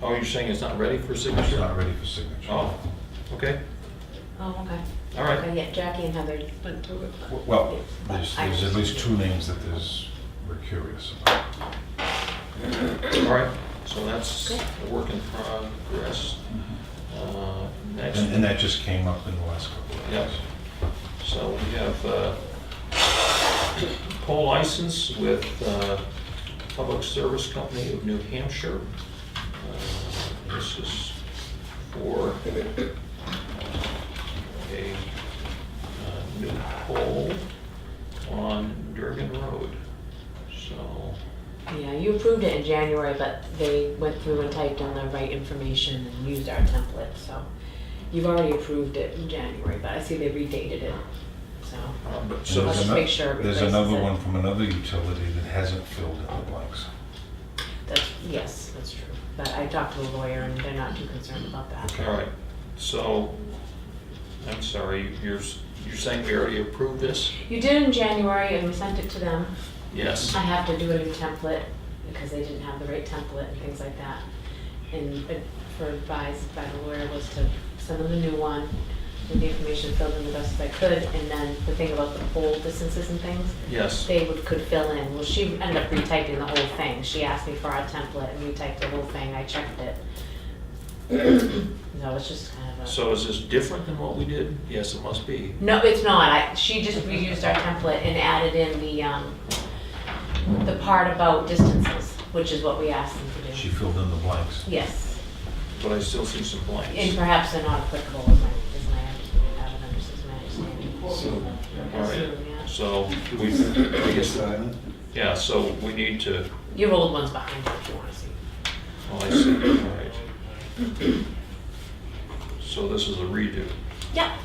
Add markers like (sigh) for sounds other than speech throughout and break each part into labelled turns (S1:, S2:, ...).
S1: Oh, you're saying it's not ready for
S2: It's
S1: signature?
S2: not ready for signature.
S1: Oh, okay,
S3: Oh, okay.
S1: all right.
S3: Okay, yeah, Jackie and Heather went through it.
S2: W- Well, there's, there's at least two names that there's, we're curious about.
S1: All right, so that's
S3: Okay.
S1: a work in progress. Uh, Next,
S2: And, and that just came up in the last couple of
S1: Yeah.
S2: days.
S1: so we have uh, poll license with uh, Public Service Company of New Hampshire. Uh, This is for a uh, new poll on Durgan Road. So,
S3: Yeah, you approved it in January, but they went through and typed in the right information and used our template, so. You've already approved it in January, but I see they redated it, so.
S1: uh, but
S2: And
S1: so
S2: there's
S3: Let's
S2: ano-
S3: make sure it
S2: There's
S3: replaces
S2: another
S3: it.
S2: one from another utility that hasn't filled in the blanks.
S3: That's, yes, that's true. But I talked to a lawyer and they're not too concerned about that.
S1: All right, so, I'm sorry, you're, you're saying we already approved this?
S3: You did in January and we sent it to them.
S1: Yes.
S3: I have to do a new template because they didn't have the right template and things like that. And ad- for advice by the lawyer was to send them a new one with the information filled in the best as I could. And then the thing about the pole distances and things,
S1: Yes,
S3: they would, could fill in. Well, she ended up retyping the whole thing. She asked me for our template and retyped the whole thing. I checked it. (clears throat) No, it's just kind of a.
S1: so is this different than what we did? Yes, it must be.
S3: No, it's not. I, she just reused our template and added in the, um, the part about distances, which is what we asked them to
S2: She
S3: do.
S2: filled in the blanks.
S3: Yes,
S1: But I still see some
S3: and
S1: blanks.
S3: perhaps they're not applicable, is my, is my, understanding. I haven't understood, is my understanding.
S1: All right,
S3: Assume, yeah.
S1: so we, I guess, yeah, so we need to,
S3: Your old one's behind you if you wanna see.
S1: oh, I see, all right. So this is a redo,
S3: Yeah,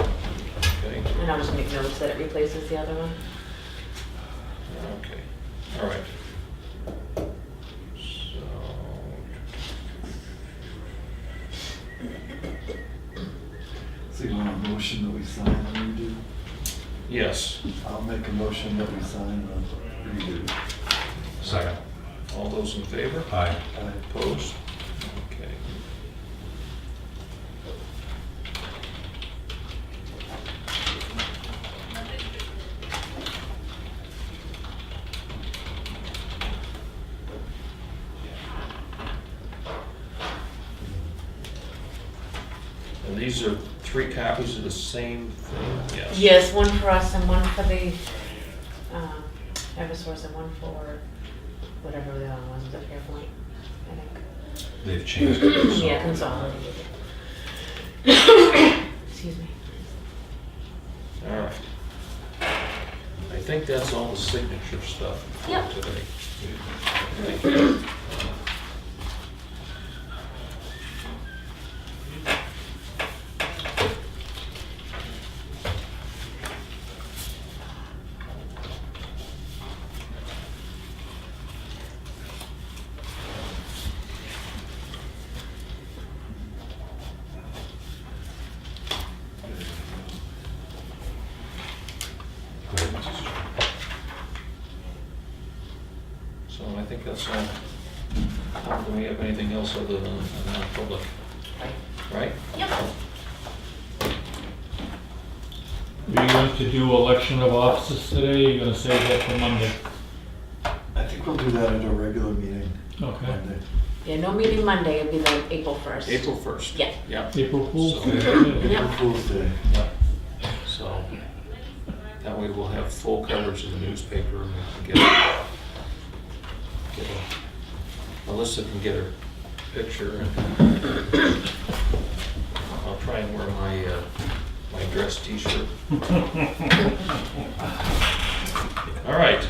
S1: okay?
S3: and I'll just make notes that it replaces the other one.
S1: Okay, all right. So,
S4: So you want a motion that we sign a redo?
S1: yes,
S4: I'll make a motion that we sign a redo.
S2: Second.
S1: all those in favor?
S2: Aye.
S4: I
S1: Opposed? Okay. And these are three copies of the same thing? Yes.
S3: Yes, one for us and one for the, um, Eversource and one for whatever the other one was, the Fairpoint, I think.
S2: They've changed it. so-
S3: Yeah, consolidated. Excuse me.
S1: All right. I think that's all the signature stuff
S3: Yep.
S1: for today. Thank you.
S2: Go ahead, Mrs. Chair.
S1: So I think that's all. How Do we have anything else other than a non-public? Right?
S5: Are you going to do election of officers today, or you gonna save that for Monday?
S4: I think we'll do that at a regular meeting
S5: Okay.
S4: Monday.
S3: Yeah, no meeting Monday, it'll be like April first.
S1: April 1st?
S3: Yeah.
S1: Yeah,
S5: April Fool's?
S1: So-
S5: Yeah.
S4: April Fool's Day.
S1: yeah. So that way we'll have full coverage in the newspaper and we can get, get a- Melissa can get her picture and I'll try and wear my, uh, my dress t-shirt. All right.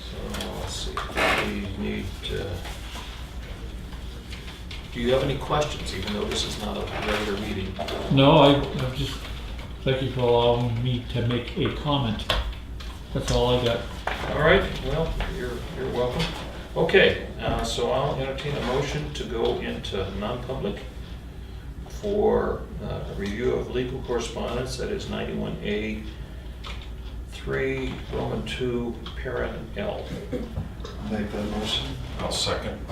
S1: So let's see, we need, uh, do you have any questions, even though this is not a regular meeting?
S5: No, I, I'm just, thank you for allowing me to make a comment. That's all I got.
S1: All right, well, you're, you're welcome. Okay, uh, so I'll entertain a motion to go into non-public for uh, review of legal correspondence, that is 91A, 3, Roman 2, parent L.
S6: Make that motion.
S4: I'll second.